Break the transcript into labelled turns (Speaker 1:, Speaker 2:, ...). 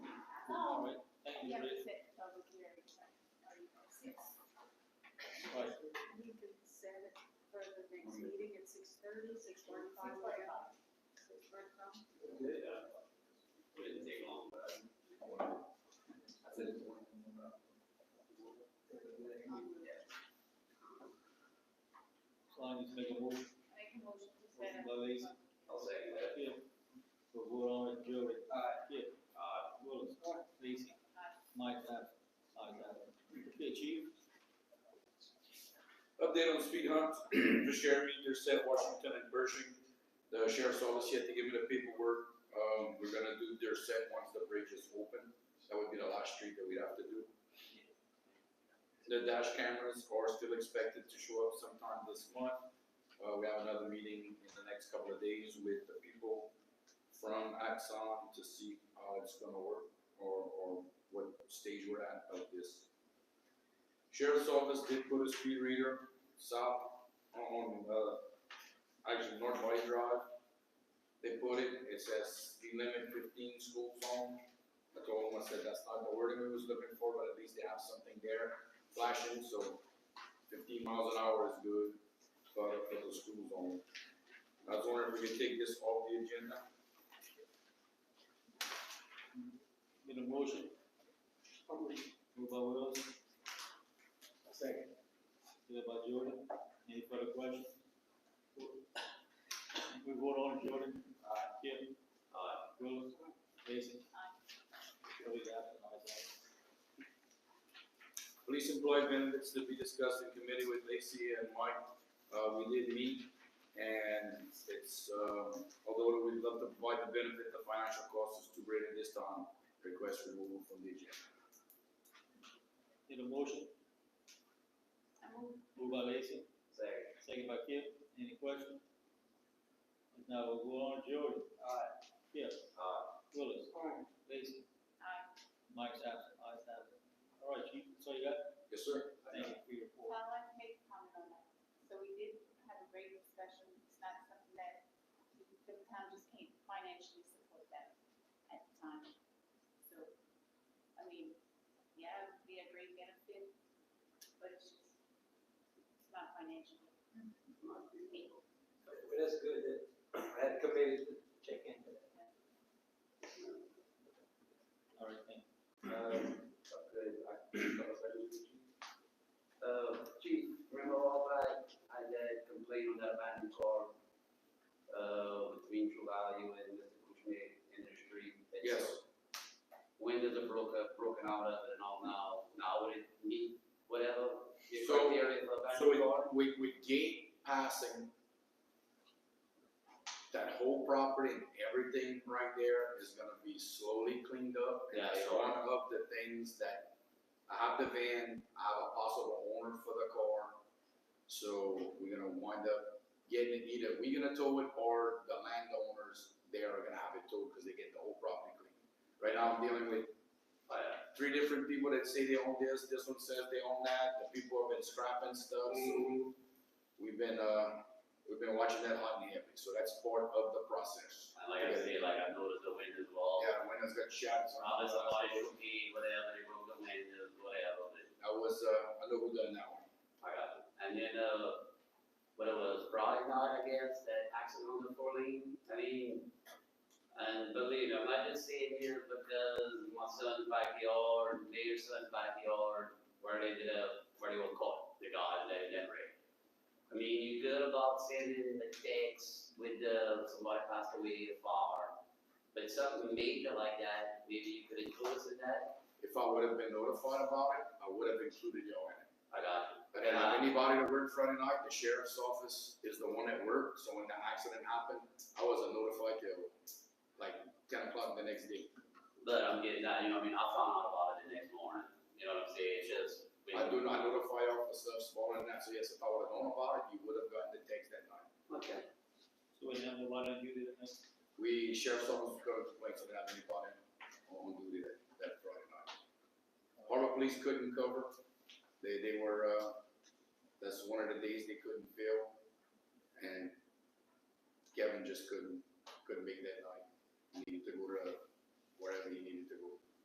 Speaker 1: thirty, six forty-five. Six forty-five.
Speaker 2: It didn't take long, but I- I said it's one.
Speaker 3: Sonia, second motion,
Speaker 1: Make a motion to
Speaker 3: motion
Speaker 1: set
Speaker 3: by
Speaker 1: up.
Speaker 3: Lacy,
Speaker 2: I'll second that.
Speaker 3: Kip. We'll vote on it, Joey.
Speaker 2: Aye.
Speaker 3: Kip.
Speaker 2: Aye.
Speaker 3: Willis. Lacy.
Speaker 1: Aye.
Speaker 3: Mike, aye. Ayes have it. Okay, chief.
Speaker 4: Update on speed humps, just Jeremy, Intercept, Washington and Pershing. The sheriff's office yet to give me the paperwork. Um, we're gonna do their set once the bridge is open. That would be the last street that we'd have to do. The dash cameras are still expected to show up sometime this month. Uh, we have another meeting in the next couple of days with the people from Axon to see how it's gonna work or, or what stage we're at of this. Sheriff's office did put a speed reader south on, uh, actually North Valley Drive. They put it, it says speed limit fifteen school zone. I told them, I said, that's not the wording we was looking for, but at least they have something there flashing, so fifteen miles an hour is good for, for the school zone. I was wondering if we could take this off the agenda.
Speaker 3: Get a motion. Move by Willis,
Speaker 5: Second.
Speaker 3: second by Jordan. Any further questions? We vote on it, Jordan. Aye. Kip.
Speaker 2: Aye.
Speaker 3: Willis. Lacy.
Speaker 1: Aye.
Speaker 3: Joey's absent, ayes have it.
Speaker 4: Police employee benefits to be discussed in committee with Lacey and Mike. Uh, we did meet, and it's, um, although we'd love to provide the benefit, the financial cost is too great at this time. Request removal from the agenda.
Speaker 3: Need a motion,
Speaker 1: I move.
Speaker 3: moved by Lacy,
Speaker 2: Second.
Speaker 3: second by Kip, any questions? If not, we'll go on, Jordan. Aye. Kip,
Speaker 2: Aye.
Speaker 3: Willis,
Speaker 5: Aye.
Speaker 3: Lacy,
Speaker 1: Aye.
Speaker 3: Mike's absent, ayes have it. All right, chief, so you got,
Speaker 4: Yes, sir.
Speaker 3: thank you for your report.
Speaker 1: I'd like to make a comment on that. So we did have a great discussion, it's not something that the town just can't financially support that at the time. So, I mean, yeah, it would be a great benefit, but it's just, it's not financially. able.
Speaker 5: But that's good that I had committed to check into that.
Speaker 3: All right, thank
Speaker 6: Um, okay, I- Uh, Chief, remember all that, I did complain on that abandoned car, uh, between True Value and Mr. Kuchme Industry.
Speaker 4: Yes.
Speaker 6: Windows are broken, broken out of it and all now, now would it meet whatever the
Speaker 4: So-
Speaker 6: criteria for
Speaker 4: So
Speaker 6: abandoned
Speaker 4: we,
Speaker 6: car?
Speaker 4: we, we gate passing that whole property and everything right there is gonna be slowly cleaned up. And
Speaker 6: Yeah,
Speaker 4: I
Speaker 6: so-
Speaker 4: want up the things that, I have the van, I have a possible owner for the car. So we're gonna wind up getting it either, we're gonna tow it or the landowners, they are gonna have it towed, cause they get the whole property cleaned. Right now, I'm dealing with uh,
Speaker 6: Yeah.
Speaker 4: three different people that say they own this, this one says they own that, the people have been scrapping stuff, so we've been, uh, we've been watching that hot and heavy, so that's part of the process.
Speaker 6: And like I say, like I noticed the windows were all,
Speaker 4: Yeah, windows got shatters on
Speaker 6: probably somebody
Speaker 4: that.
Speaker 6: should be, whatever, they broke the windows, whatever, but
Speaker 4: That was, uh, I know who done that one.
Speaker 6: I got it. And then, uh, what it was, Friday night, I guess, that accident on the four lane, I mean, and believe me, I'm not just saying here because my son's backyard, their son's backyard, where they did up, where they were caught, the guys that in that wreck. I mean, you good about sending the text with the, somebody passed away a fire, but something major like that, maybe you could include us in that,
Speaker 4: If I would have been notified about it, I would have included y'all in it.
Speaker 6: I got you.
Speaker 4: I didn't have anybody that worked Friday night, the sheriff's office is the one that worked, so when the accident happened, I wasn't notified till like ten o'clock the next day.
Speaker 6: But I'm getting that, you know, what I mean, I found out about it the next morning, you know what I'm saying, it's just.
Speaker 4: I do not notify y'all for stuff smaller than that, so yes, if I would have known about it, you would have gotten the text that night.
Speaker 6: Okay.
Speaker 3: you. So we have the one on duty tonight,
Speaker 4: We, sheriff's office was going to complain, so they didn't have anybody on duty that, that Friday night. Harbor police couldn't cover, they, they were, uh, that's one of the days they couldn't fill, and Kevin just couldn't, couldn't make that night. He needed to go to wherever he needed